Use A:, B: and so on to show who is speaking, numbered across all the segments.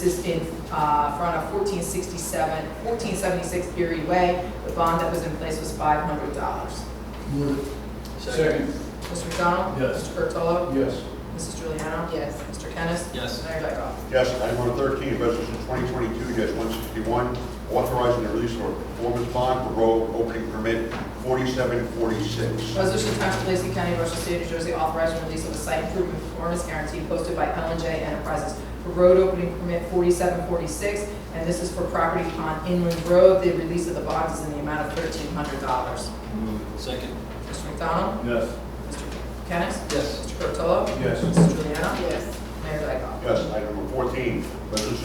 A: This is in uh, front of 1467, 1476 Erie Way. The bond that was in place was $500.
B: Move it.
C: Second.
A: Mr. McDonald?
B: Yes.
A: Mr. Curatolo?
B: Yes.
A: Mrs. Juliana? Yes. Mr. Kennis?
C: Yes.
A: Mayor Dyckoff?
D: Yes, item number 13, resolution 2022-161, authorizing the release of a performance bond for road opening permit 4746.
A: Resolution to Township of Lacey County, Ocean State, New Jersey, authorizing release of a site improvement performance guarantee posted by Ellen J. Enterprises for road opening permit 4746, and this is for property on Inland Road. The release of the bond is in the amount of $1,300.
C: Second.
A: Mr. McDonald?
B: Yes.
A: Mr. Kennis?
C: Yes.
A: Mr. Curatolo?
B: Yes.
A: Mrs. Juliana? Yes. Mayor Dyckoff?
D: Yes, item number 14, resolution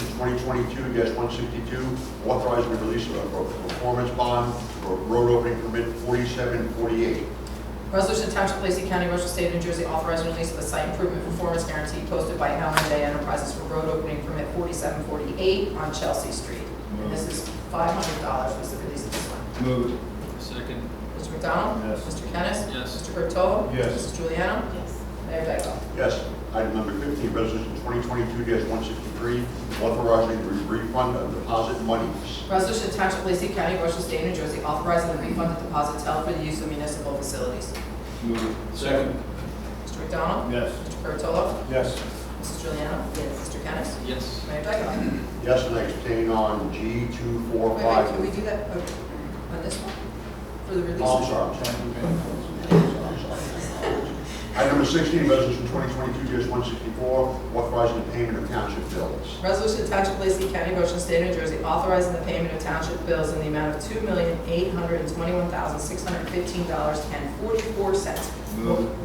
D: 2022-162, authorizing the release of a performance bond for road opening permit 4748.
A: Resolution to Township of Lacey County, Ocean State, New Jersey, authorizing release of a site improvement performance guarantee posted by Helen J. Enterprises for road opening permit 4748 on Chelsea Street. And this is $500 was the release of this one.
B: Move it.
C: Second.
A: Mr. McDonald?
B: Yes.
A: Mr. Kennis?
C: Yes.
A: Mr. Curatolo?
B: Yes.
A: Mrs. Juliana? Yes. Mayor Dyckoff?
D: Yes, item number 15, resolution 2022-163, authorizing the refund of deposit monies.
A: Resolution to Township of Lacey County, Ocean State, New Jersey, authorizing the refund of deposits held for the use of municipal facilities.
B: Move it.
C: Second.
A: Mr. McDonald?
B: Yes.
A: Mr. Curatolo?
B: Yes.
A: Mrs. Juliana? Yes. Mr. Kennis?
C: Yes.
A: Mayor Dyckoff?
D: Yes, and I abstain on G two four
A: Wait, wait,
D: five.
A: can we do that uh, on this one? For the release?
D: Oh, I'm sorry, I'm sorry. I'm sorry. Item number sixteen, resolution twenty twenty-two one sixty-four, authorizing the payment of township bills.
A: Resolution to Township of Lacey County, Ocean State, New Jersey, authorizing the payment of township bills in the amount of two million, eight hundred and twenty-one thousand, six hundred and fifteen dollars and forty-four cents.
B: Move it.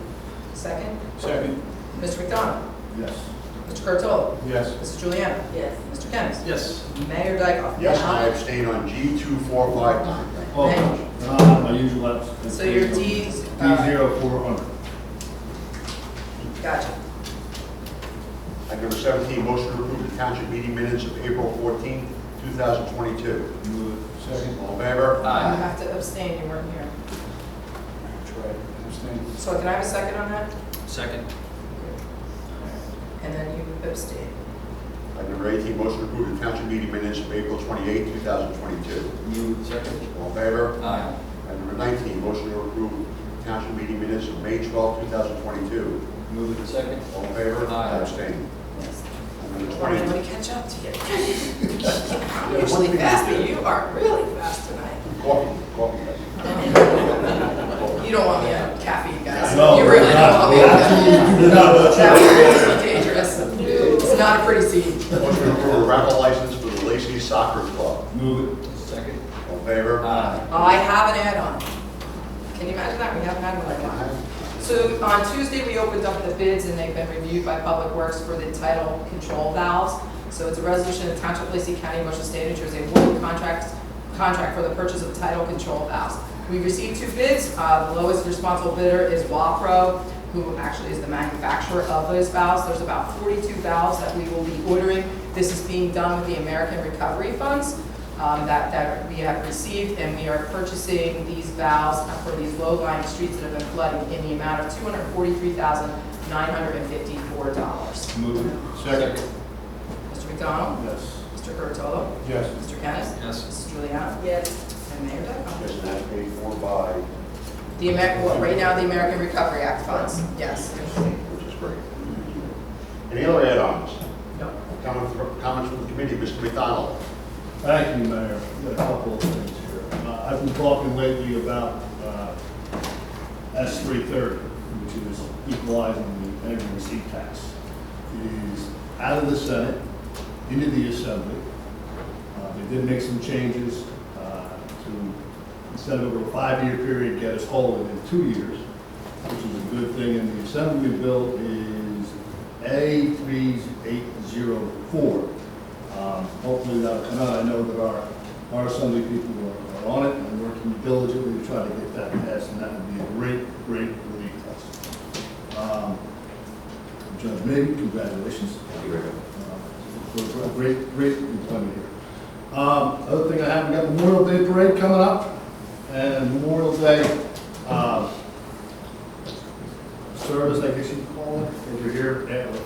A: Second,
B: Second.
A: Mr. McDonald?
B: Yes.
A: Mr. Curatolo?
B: Yes.
A: Mrs. Juliana? Yes. Mr. Kennis?
C: Yes.
A: Mayor Dyckoff?
D: Yes, and I abstain on G two four five nine.
B: Oh,
A: Thank
B: no, no, my usual abstain.
A: So your D's,
B: D
A: uh,
B: zero four hundred.
A: Gotcha.
D: Item number seventeen, motion to approve the township meeting minutes of April fourteenth, two thousand twenty-two.
B: Move it. Second.
D: All in favor?
A: You
C: Aye.
A: have to abstain, you weren't here.
B: Right. Abstain.
A: So can I have a second on that?
C: Second.
A: And then you abstain.
D: Item number eighteen, motion to approve the township meeting minutes of April twenty-eighth, two thousand twenty-two.
B: Move
C: Second.
D: All in favor?
C: Aye.
D: Item number nineteen, motion to approve township meeting minutes of May twelfth, two thousand twenty-two.
B: it. Move it.
C: Second.
D: All in favor?
C: Aye.
D: I abstain.
A: Yes.
D: Item number
A: I'm
D: twenty.
A: going to catch up to you. I'm Usually fast, but you are really fast tonight.
D: Coffee, coffee.
A: You don't want me to caffeine, guys.
B: No,
A: You really
B: we're
A: don't
B: not-
A: want me
B: we're
A: to.
B: absolutely not.
A: That would be dangerous. It's not a pretty scene.
D: Motion to approve a raffle license for the Lacey Soccer Club.
B: Move it.
C: Second.
D: All in favor?
C: Aye.
A: Oh, I have an add-on. Can you imagine that? We haven't had one like that. So on Tuesday, we opened up the bids and they've been reviewed by Public Works for the title control valves. So it's a resolution of Township of Lacey County, Ocean State, New Jersey, awarding contracts, contract for the purchase of title control valves. We received two bids. Uh, The lowest responsible bidder is Wapro, who actually is the manufacturer of those valves. There's about 42 valves that we will be ordering. This is being done with the American Recovery Funds um, that, that we have received, and we are purchasing these valves for these low-lying streets that have been flooding in the amount of $243,954.
B: Move it. Second.
A: Mr. McDonald?
B: Yes.
A: Mr. Curatolo?
B: Yes.
A: Mr. Kennis?
C: Yes.
A: Mrs. Juliana? Yes. And Mayor Dyckoff?
D: Yes, and that's paid for by,
A: The Amer, well, right now, the American Recovery Act funds, yes.
D: which is great. Any other add-ons?
A: No.
D: Comments from- comments from the committee, Mr. McDonald?
B: Thank you, Mayor. I've got a couple of things here. Uh, I've been talking lately about uh, S three thirty, which is equalizing the energy receipt tax. It is out of the Senate, into the Assembly. Uh, They did make some changes uh, to, instead of over a five-year period, get us whole within two years, which is a good thing. And the Assembly bill is A three eight zero four. Um, Hopefully that'll come out. I know that our, our assembly people are- are on it and working diligently to try to get that passed, and that would be a great, great relief to us. Um, Judge Mabee, congratulations. Uh, For a great, great employment here. Um, Other thing I have, we got Memorial Day Parade coming up, and Memorial Day um, service, I guess you'd call it, over here at